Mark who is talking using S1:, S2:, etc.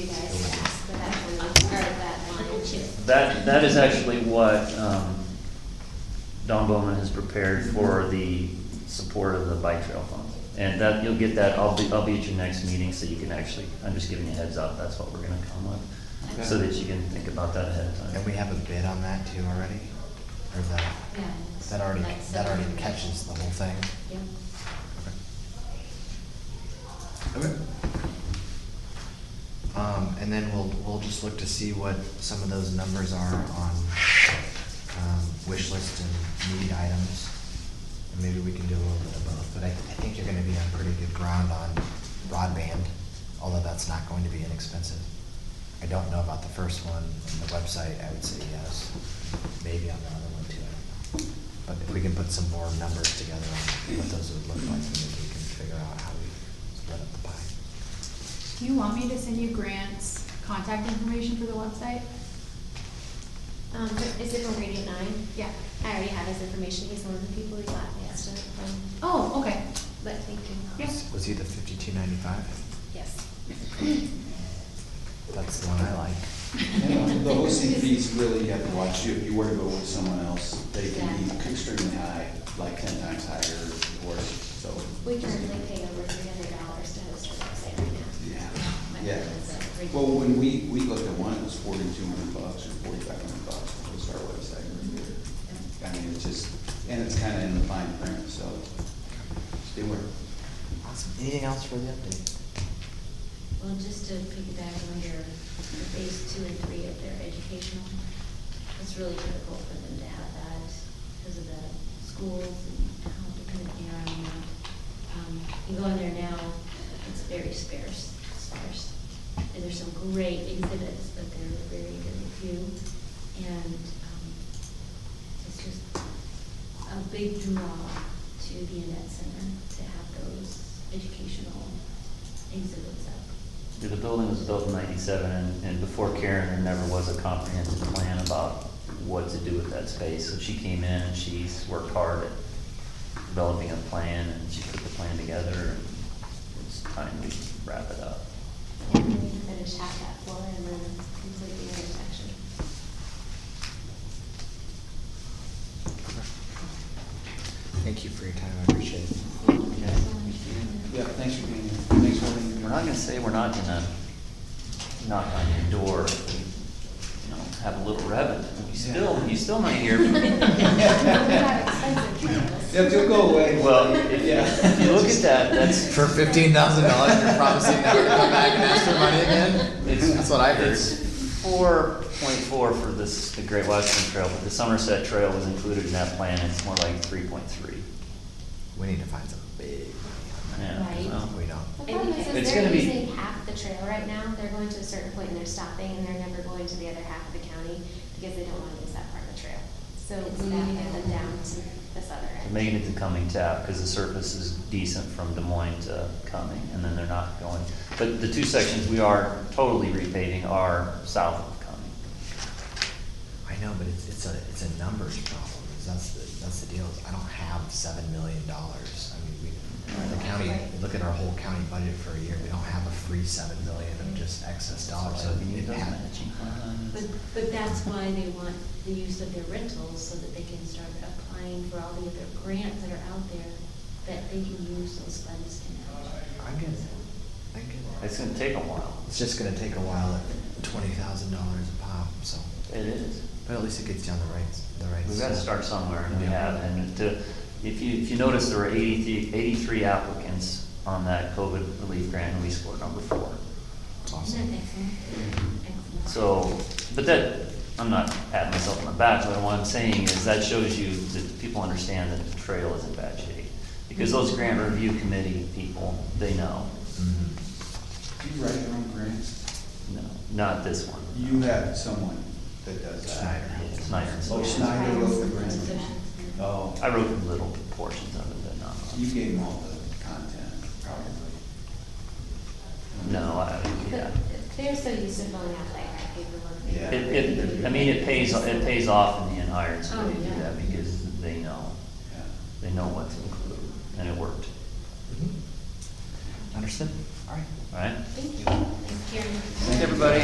S1: yes.
S2: That, that is actually what um, Don Bowman has prepared for the support of the bike trail fund. And that, you'll get that, I'll be, I'll be at your next meeting, so you can actually, I'm just giving you a heads up, that's what we're gonna come with, so that you can think about that ahead of time.
S3: And we have a bid on that too already? Or is that,
S1: Yeah.
S3: that already,
S1: Like
S3: that already
S1: seven.
S3: catches the whole thing?
S1: Yep.
S3: Okay. Um, and then we'll, we'll just look to see what some of those numbers are on, um, wish list and need items. And maybe we can do a little bit of both, but I, I think you're gonna be on pretty good ground on broadband, although that's not going to be inexpensive. I don't know about the first one, on the website, I would say yes, maybe on the other one too, I don't know. But if we can put some more numbers together on what those would look like, maybe we can figure out how we spread up the pie.
S4: Do you want me to send you Grant's contact information for the website?
S1: Um, is it from Radiant Nine?
S4: Yeah.
S1: I already have his information, he's one of the people who got yesterday from,
S4: Oh, okay.
S1: but thank you.
S4: Yes.
S3: Was he the fifty-two ninety-five?
S1: Yes.
S3: That's the one I like.
S5: Yeah, The hosting fees really have to watch you, if you were to go with someone else, they can be
S1: Yeah.
S5: extremely high, like ten times higher or so.
S1: We currently pay over three hundred dollars to host our website right now.
S5: Yeah,
S1: My
S5: yeah.
S1: husband's a great-
S5: Well, when we, we looked at one, it was forty-two hundred bucks or forty-five hundred bucks to host our website.
S1: Mm-hmm.
S5: I mean, it's just, and it's kinda in the fine print, so stay aware.
S3: Awesome. Anything else for the update?
S1: Well, just to piggyback on your the phase two and three of their educational, it's really critical for them to have that because of the schools and how dependent they are on that. Um, You go in there now, it's very sparse, sparse. And there's some great exhibits, but there are very very few. And um, it's just a big draw to the Annette Center to have those educational exhibits up.
S2: Yeah, The building was built in ninety-seven, and, and before Karen, there never was a comprehensive plan about what to do with that space. So she came in and she's worked hard at developing a plan, and she put the plan together, and it's time we wrap it up.
S1: And we need to finish half that floor and then complete the intersection.
S3: Thank you for your time, I appreciate it.
S1: Thank you so much for doing that.
S5: Yeah, thanks for being here, thanks for letting me.
S2: We're not gonna say we're not gonna knock on your door, if we, you know, have a little revenue. You still, you still not here.
S5: Yeah, they'll go away.
S2: Well, if you, if you look at that, that's,
S3: For fifteen thousand dollars, you're promising never to come back and ask for money again?
S2: It's-
S3: That's what I heard.
S2: It's four point four for this, the Great Western Trail, but the Somerset Trail was included in that plan, and it's more like three point three.
S3: We need to find some big money on
S1: Right.
S3: that. We don't.
S1: The problem is,
S2: It's
S1: is they're
S2: gonna be-
S1: using half the trail right now, they're going to a certain point and they're stopping and they're never going to the other half of the county because they don't wanna lose that part of the trail. So we need to get them down to this other
S2: They're
S1: end.
S2: Making it to Cumming Tap, because the surface is decent from Des Moines to Cumming, and then they're not going. But the two sections we are totally repaving are south of Cumming.
S3: I know, but it's, it's a, it's a numbers problem, is that's the, that's the deal, is I don't have seven million dollars. I mean, we, the county, look at our whole county budget for a year, we don't have a free seven million of just excess dollars, so
S2: So you need
S3: it
S2: those
S3: ha-
S2: matching plans.
S6: But, but that's why they want the use of their rentals, so that they can start applying for all the other grants that are out there, that they can use those funds in.
S3: I'm getting it, I'm getting it.
S2: It's gonna take a while.
S3: It's just gonna take a while at twenty thousand dollars a pop, so,
S2: It is.
S3: but at least it gets you on the right, the right.
S2: We've got to
S3: step.
S2: start somewhere, and we
S3: Yeah.
S2: have, and to, if you, if you notice, there were 83 83 applicants on that COVID relief grant, and we scored number four.
S3: Awesome.
S6: Isn't that excellent? Excellent.
S2: So, but that, I'm not patting myself on the back, but what I'm saying is that shows you that people understand that the trail is in bad shape. Because those grant review committee people, they know,
S3: Mhm.
S5: Do you write your own grants?
S2: no, not this one.
S5: You have someone that does that.
S3: Snyder.
S2: Yeah, Snyder.
S5: Oh, Snyder wrote the grant. Oh.
S2: I wrote little portions of it, but not.
S5: You gave them all the content, probably.
S2: No, I, yeah.
S1: But They're so used to filling out like our paperwork.
S5: Yeah.
S2: It, it, I mean, it pays, it pays off in the end hire, so they
S6: Oh,
S2: do
S6: yeah.
S2: that because they know,
S5: Yeah.
S2: they know what to include, and it worked,
S3: Mhm. Understood, all right.
S2: all right?
S1: Thank you. Thanks, Karen.
S2: Everybody